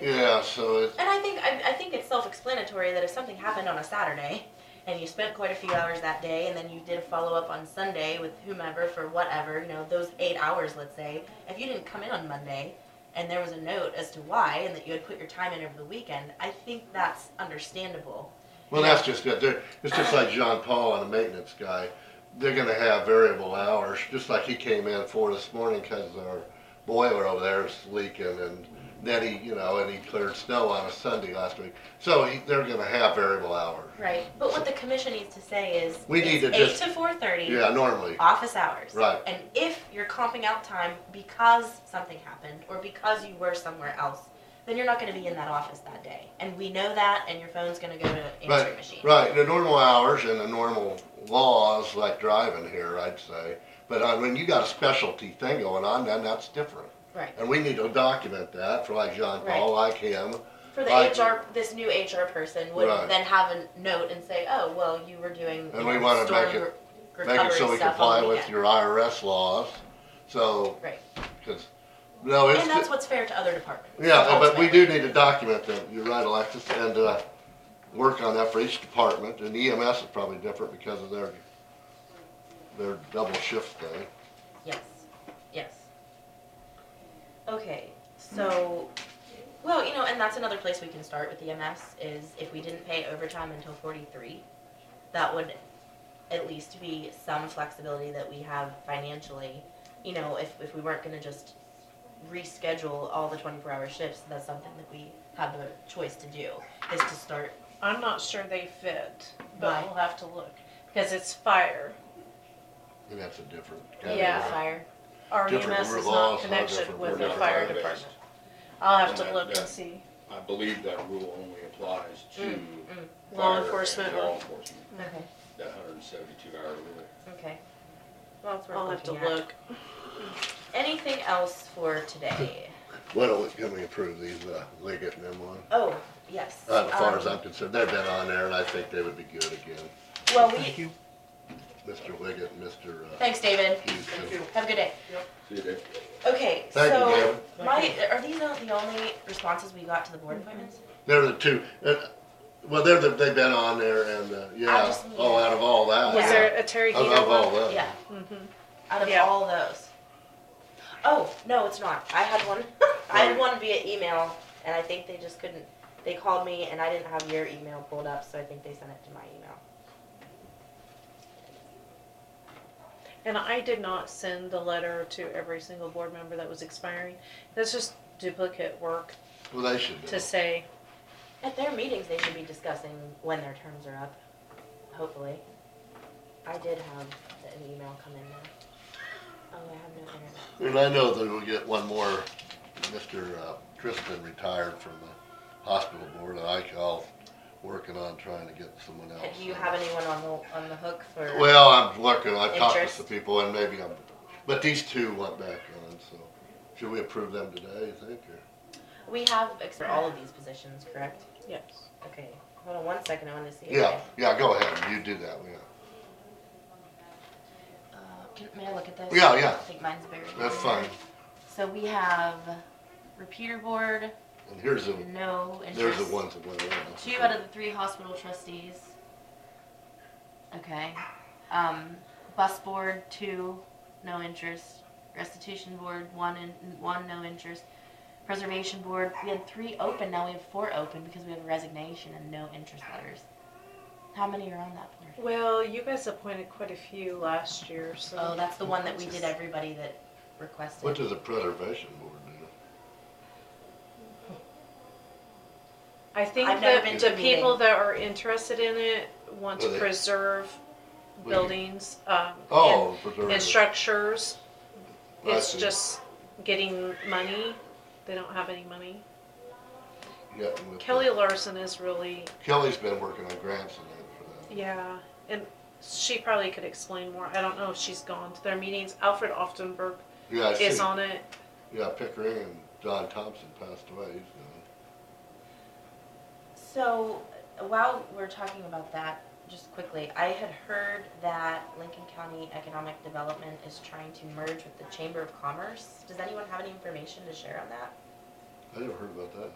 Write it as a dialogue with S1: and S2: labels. S1: Yeah, so it,
S2: And I think I, I think it's self-explanatory that if something happened on a Saturday and you spent quite a few hours that day and then you did a follow-up on Sunday with whomever for whatever, you know, those 8 hours let's say, if you didn't come in on Monday and there was a note as to why and that you had put your time in over the weekend, I think that's understandable.
S1: well, that's just it. They're, it's just like John Paul and the maintenance guy. They're gonna have variable hours, just like he came in for this morning because our boiler over there is leaking and then he, you know, and he cleared snow on a Sunday last week. So he, they're gonna have variable hours.
S2: Right. But what the commission needs to say is
S1: We need
S2: it's
S1: to
S2: 8
S1: just-
S2: to 4:30
S1: Yeah, normally.
S2: office hours.
S1: Right.
S2: And if you're comping out time because something happened or because you were somewhere else, then you're not going to be in that office that day. And we know that, and your phone's going to go to answering
S1: Right,
S2: machine.
S1: right. The normal hours and the normal laws, like driving here, I'd say. But uh, when you got a specialty thing going on, then that's different.
S2: Right.
S1: And we need to document that for like John Paul, like him.
S2: For the
S1: Right.
S2: HR, this new HR person would
S1: Right.
S2: then have a note and say, "Oh, well, you were doing
S1: And
S2: you
S1: we
S2: know,
S1: wanna
S2: storm
S1: make it-
S2: re-
S1: Make
S2: recovery
S1: it so we
S2: stuff on
S1: comply
S2: the
S1: with
S2: weekend."
S1: your IRS laws. So,
S2: right."
S1: because, no, it's,
S2: And that's what's fair to other departments.
S1: yeah, but we
S2: ultimately.
S1: do need to document them. You're right, Alexis, and, uh, work on that for each department. And EMS is probably different because of their, their double shift thing.
S2: Yes, yes. Okay, so, well, you know, and that's another place we can start with EMS is if we didn't pay overtime until forty-three, that would at least be some flexibility that we have financially. You know, if, if we weren't gonna just reschedule all the twenty-four hour shifts, that's something that we have a choice to do, is to start,
S3: I'm not sure they fit, but
S2: Why?
S3: we'll have to look because it's fire.
S1: And that's a different category.
S3: Yeah,
S2: fire,
S3: Our
S1: Different
S3: EMS
S1: rules,
S3: E is
S1: all
S3: not
S1: different
S3: connected with the
S1: rules.
S3: fire
S4: Different
S3: department.
S4: fire-based.
S3: I'll have to
S4: Yeah,
S3: look
S4: yeah.
S3: and see.
S4: I believe that rule only applies to
S2: Mm, mm.
S3: Law
S4: fire
S3: enforcement
S4: and
S3: or-
S4: Law enforcement,
S2: okay,
S4: that hundred and seventy-two hour rule.
S2: okay. Well, it's worth
S3: I'll have to
S2: looking at.
S3: look.
S2: Anything else for today?
S1: Why don't we, can we approve these, uh, Liggett and them one?
S2: Oh, yes.
S1: Uh, As far as
S2: Um,
S1: I'm concerned, they've been on there and I think they would be good again.
S2: Well, we,
S1: Mr. Liggett, and Mr. uh,
S2: thanks, David.
S1: Houston.
S2: Have a good day.
S4: See, they,
S2: Okay,
S1: Thank you,
S2: so,
S1: David.
S2: my, are these not the only responses we got to the board appointments?
S1: They're the two, uh, well, they're the, they've been on there and, uh, yeah,
S2: just mean-
S1: oh, out of all that.
S3: Was
S2: Yeah.
S3: there a Terry
S1: Out
S3: Heater
S1: of all
S3: one?
S1: that.
S2: Yeah,
S3: Mhm.
S2: out of
S3: Yeah.
S2: all those. Oh, no, it's not. I had one, I had one via email, and I think they just couldn't, they called me, and I didn't have your email pulled up, so I think they sent it to my email.
S3: And I did not send the letter to every single board member that was expiring. That's just duplicate work
S1: Well, they should
S3: to
S1: know.
S3: say,
S2: At their meetings, they should be discussing when their terms are up, hopefully. I did have an email come in there. Oh, I have no internet.
S1: And I know that we'll get one more, Mr. uh, Tristan retired from the hospital board, and I call, working on trying to get someone else.
S2: Do you have anyone on the, on the hook for?
S1: Well, I'm looking, I've talked to
S2: Interest.
S1: some people and maybe I'm, but these two went back on, so should we approve them today, you think, or?
S2: We have, ex- for all of these positions, correct?
S3: yes.
S2: Okay, hold on one second, I wanna see. if
S1: Yeah, yeah, go ahead, you do that, yeah.
S2: I- Uh, can, may I look at this?
S1: Yeah, yeah.
S2: I think mine's buried.
S1: That's fine.
S2: So we have repeater board,
S1: And here's the,
S2: no interest.
S1: there's the ones that went around.
S2: Two out of the three hospital trustees. Okay. Um, bus board, two, no interest. Restitution board, one, in, one, no interest. Preservation board, we had three open, now we have four open because we have a resignation and no interest letters. How many are on that board?
S3: Well, you guys appointed quite a few last year,
S2: Oh,
S3: so
S2: that's the one that we did everybody that requested.
S1: What does the preservation board do?
S3: I think
S2: I've never
S3: that
S2: been to
S3: the
S2: a
S3: people
S2: meeting.
S3: that are interested in it want
S1: Well,
S3: to
S1: they-
S3: preserve
S1: What do you-
S3: buildings, um, and,
S1: Oh, preservation.
S3: and structures.
S1: I
S3: It's
S1: see.
S3: just getting money. They don't have any money.
S1: Yeah, with the-
S3: Kelly Larson is really,
S1: Kelly's been working on grants and that for that.
S3: yeah, and she probably could explain more. I don't know if she's gone to their meetings. Alfred Oftenberg
S1: Yeah, I see.
S3: is on it.
S1: Yeah, Pickering and John Thompson passed away, so.
S2: So while we're talking about that, just quickly, I had heard that Lincoln County Economic Development is trying to merge with the Chamber of Commerce. Does anyone have any information to share on that?
S1: I never heard about that.